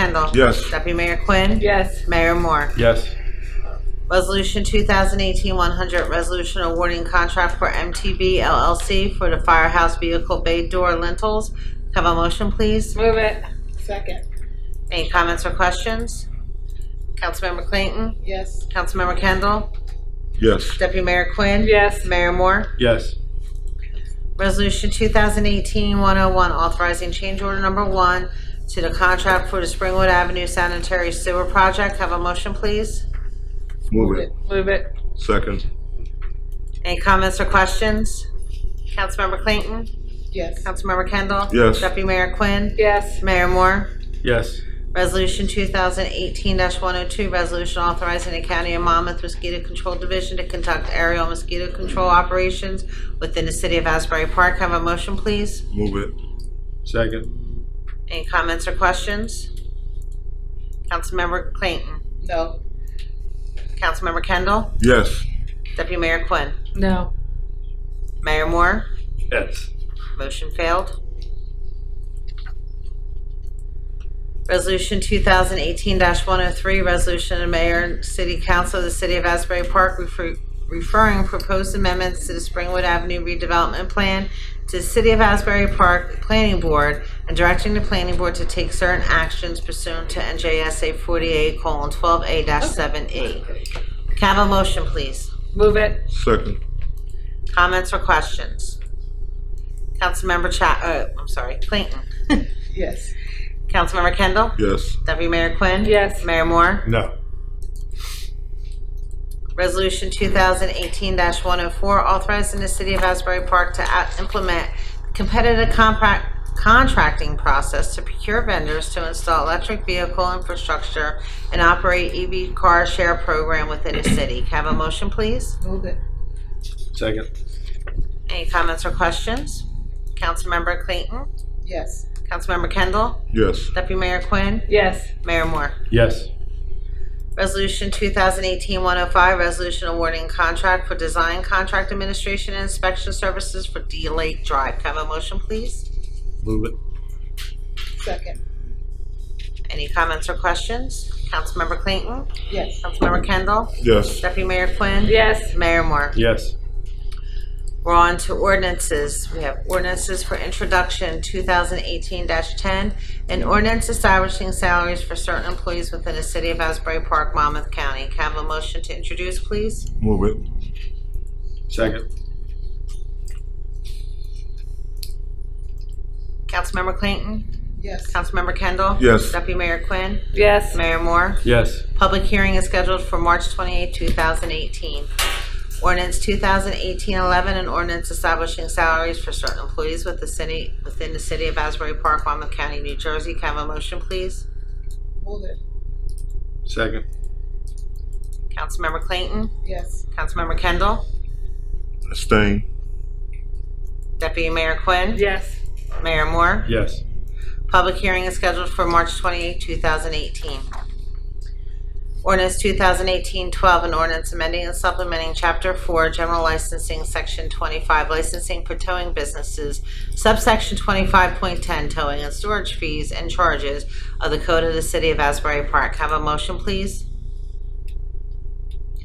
Kendall. Yes. Deputy Mayor Quinn. Yes. Mayor Moore. Yes. Resolution 2018-100, resolution awarding contract for MTB LLC for the firehouse vehicle bay door lintels. Have a motion, please? Move it. Second, Any comments or questions? Councilmember Clayton? yes. Councilmember Kendall? yes, Deputy Mayor Quinn? Yes. Mayor Moore? Yes. Resolution 2018-101, authorizing change order number one to the contract for the Springwood Avenue Sanitary Sewer Project. Have a motion, please? move it, Move it. second, Any comments or questions? Councilmember Clayton? Yes. Councilmember Kendall? Yes. Deputy Mayor Quinn? Yes. Mayor Moore? Yes. Resolution 2018-102, resolution authorizing the County of Monmouth Mosquito Control Division to conduct aerial mosquito control operations within the city of Asbury Park. Have a motion, please? move it, Second. Any comments or questions? Councilmember Clayton? No. Councilmember Kendall? yes, Deputy Mayor Quinn? No. Mayor Moore? Yes. Motion failed. Resolution 2018-103, resolution of the mayor and city council of the city of Asbury Park refer- referring proposed amendments to the Springwood Avenue redevelopment plan to the city of Asbury Park Planning Board and directing the planning board to take certain actions pursuant to NJSA 48:12A-7E. E. Can I have a motion, please? Move it. second, Comments or questions? Councilmember Cha, uh, I'm sorry, Clayton. Yes. Councilmember Kendall? yes, Deputy Mayor Quinn? Yes. Mayor Moore? No. Resolution 2018-104, authorizing the City of Asbury Park to out- implement competitive compact contracting process to procure vendors to install electric vehicle infrastructure and operate EV car share program within the city. Can I Have a motion, please? Move it. Second. Any comments or questions? Councilmember Clayton? Yes. Councilmember Kendall? yes, Deputy Mayor Quinn? Yes. Mayor Moore? Yes. Resolution 2018-105, resolution awarding contract for design contract administration and inspection services for D Lake Drive. Can I have a motion, please? Move it. Second, Any comments or questions? Councilmember Clayton? yes. Councilmember Kendall? yes, Deputy Mayor Quinn? Yes. Mayor Moore? Yes. We're on to ordinances. We have ordinances for introduction, 2018-10, an ordinance establishing salaries for certain employees within the city of Asbury Park, Monmouth County. Can I have a motion to introduce, please? move it, Second. Councilmember Clayton? Yes. Councilmember Kendall? Yes. Deputy Mayor Quinn? Yes. Mayor Moore? Yes. Public hearing is scheduled for March 28, 2018. Ordinance 2018-11, an ordinance establishing salaries for certain employees with the city, within the city of Asbury Park, Monmouth County, New Jersey. Can I have a motion, please? Move it. Second. Councilmember Clayton? Yes. Councilmember Kendall? abstain, Deputy Mayor Quinn? Yes. Mayor Moore? Yes. Public hearing is scheduled for March 28, 2018. Ordinance 2018-12, an ordinance amending and supplementing Chapter 4, General Licensing, Section 25, Licensing for Towing Businesses, subsection 25.10, Towing and Storage Fees and Charges of the Code of the City of Asbury Park. Have a motion, please?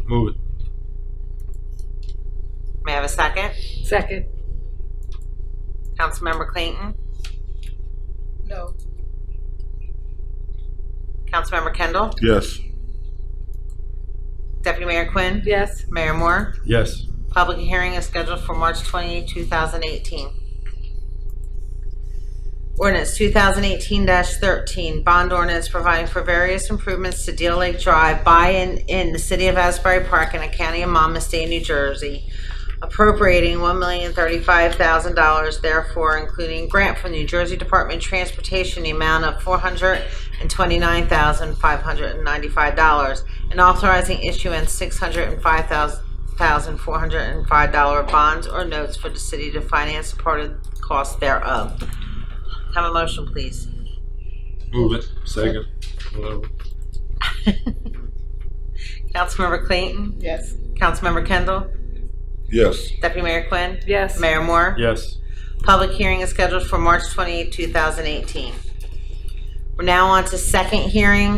Move it. May I have a second? Second. Councilmember Clayton? No. Councilmember Kendall? yes, Deputy Mayor Quinn? Yes. Mayor Moore? Yes. Public hearing is scheduled for March 28, 2018. Ordinance 2018-13, bond ordinance providing for various improvements to Deal Lake Drive by and in the city of Asbury Park and the county of Monmouth, state of New Jersey, appropriating $1,035,000 therefore, including grant from the New Jersey Department of Transportation, the amount of $429,595, and authorizing issuance $605,000 thousand four hundred and five dollar bonds or notes for the city to finance a part of the cost thereof. Have a motion, please. Move it. Second. Whatever. Councilmember Clayton, Yes. Councilmember Kendall, yes, Deputy Mayor Quinn, Yes. Mayor Moore. Yes. Public hearing is scheduled for March 28, 2018. We're now on to second hearing